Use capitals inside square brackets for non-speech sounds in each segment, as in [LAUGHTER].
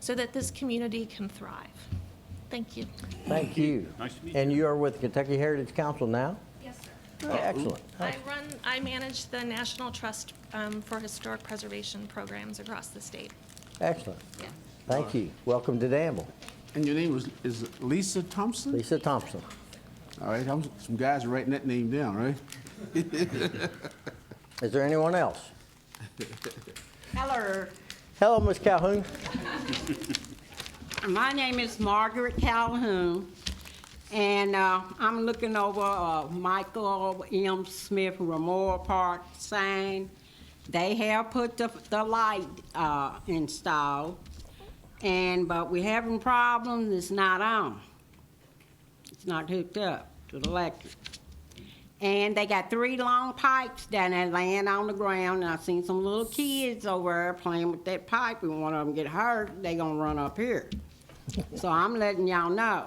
so that this community can thrive. Thank you. Thank you. Nice to meet And you are with Kentucky Heritage Council now? Yes, sir. Excellent. I run, I manage the National Trust um, for Historic Preservation Programs across the state. Excellent. Yeah. Thank you. Welcome to Danville. And your name was, is Lisa Thompson? Lisa Thompson. All right, I'm, some guys are writing that name down, right? Is there anyone else? Hello, Hello, Ms. Calhoun. my name is Margaret Calhoun, and uh, I'm looking over uh, Michael M. Smith Memorial Park sign. They have put the, the light uh, installed, and, but we having problems, it's not on. It's not hooked up to the electric. And they got three long pipes down there laying on the ground, and I seen some little kids over there playing with that pipe, and one of them get hurt, they gonna run up here. So I'm letting y'all know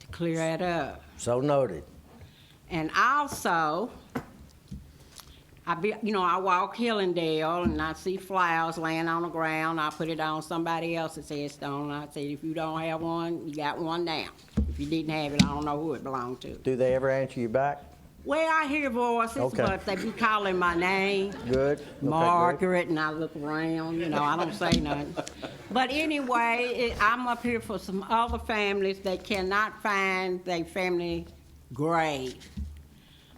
to clear that up. So noted. And also, I be, you know, I walk Hillendale and I see flowers laying on the ground. I put it on somebody else's headstone. I said, if you don't have one, you got one now. If you didn't have it, I don't know who it belonged to. Do they ever answer you back? Well, I hear voices, Okay. but they be calling my name, Good? Okay, good. Margaret, and I look around, you know, I don't say nothing. But anyway, it- I'm up here for some other families that cannot find their family grave.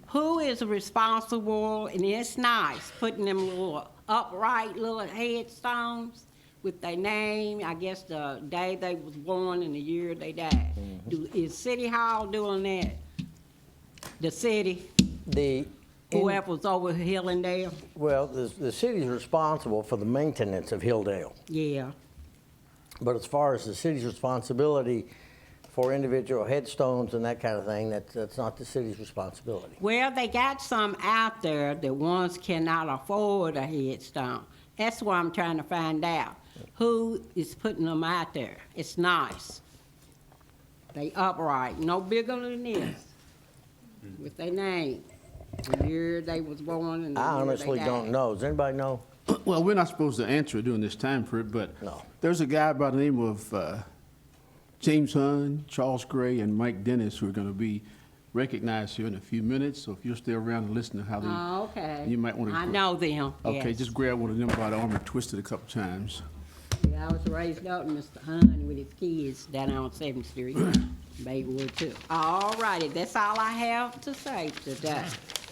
Who is responsible, and it's nice, putting them little upright little headstones with their name, I guess the day they was born and the year they died. Do- Is City Hall doing that? The city? The, in- Whoever's over Hill and Dale? well, the, the city's responsible for the maintenance of Hilldale. Yeah. But as far as the city's responsibility for individual headstones and that kind of thing, that's, that's not the city's responsibility. Well, they got some out there that ones cannot afford a headstone. That's why I'm trying to find out. Who is putting them out there? It's nice. They upright, no bigger than this, with their name, the year they was born and the I year they honestly don't died. know. Does anybody know? Well, we're not supposed to answer it during this time period, but No. there's a guy by the name of uh, James Hunt, Charles Gray, and Mike Dennis who are going to be recognized here in a few minutes. So if you'll stay around and listen to how they, Oh, okay. you might want to. I know them, Okay, yes. just grab one of them by the arm and twist it a couple times. Yeah, I was raised up in Mr. Hunt with his kids down on Seventh Street, [COUGHS] Babywood too. All righty, that's all I have to say today.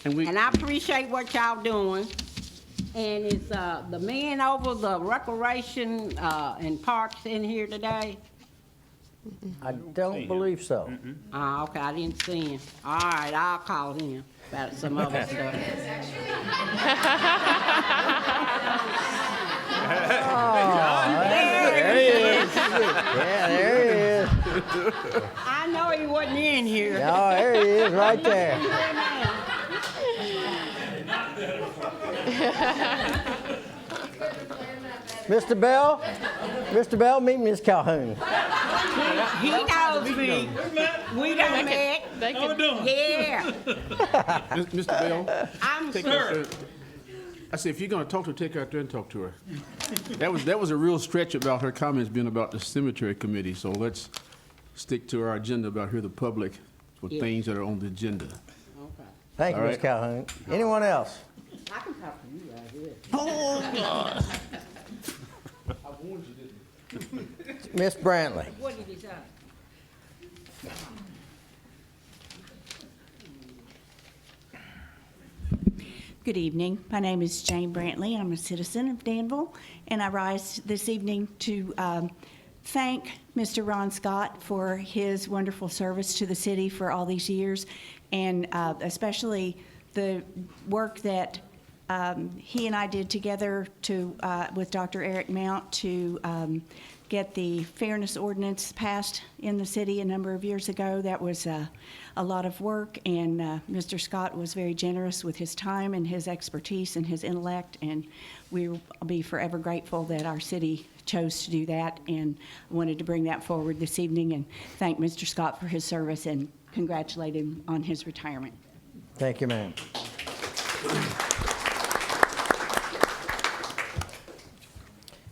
And we- And I appreciate what y'all doing. And it's, uh, the men over the recreation, uh, and parks in here today? I don't believe so. Ah, okay, I didn't see him. All right, I'll call him about some other stuff. Yeah, there he is. I know he wasn't in here. Oh, there he is, right there. Mr. Bell, Mr. Bell, meet Miss Calhoun. He knows me. We done met. They can Yeah, Mis- Mr. Bell, I'm take her. I said, if you're going to talk to her, take her out there and talk to her. That was, that was a real stretch about her comments being about the cemetery committee, so let's stick to our agenda about here, the public, for Yeah. things that are on the agenda. Thank you, All Miss right. Calhoun. Anyone else? I can talk to you right here. Miss Brantley. What did he say? Good evening. My name is Jane Brantley. I'm a citizen of Danville, and I rise this evening to um, thank Mr. Ron Scott for his wonderful service to the city for all these years, and uh, especially the work that um, he and I did together to, uh, with Dr. Eric Mount to um, get the fairness ordinance passed in the city a number of years ago. That was uh, a lot of work, and uh, Mr. Scott was very generous with his time and his expertise and his intellect, and we will be forever grateful that our city chose to do that, and wanted to bring that forward this evening and thank Mr. Scott for his service and congratulate him on his retirement. Thank you, ma'am.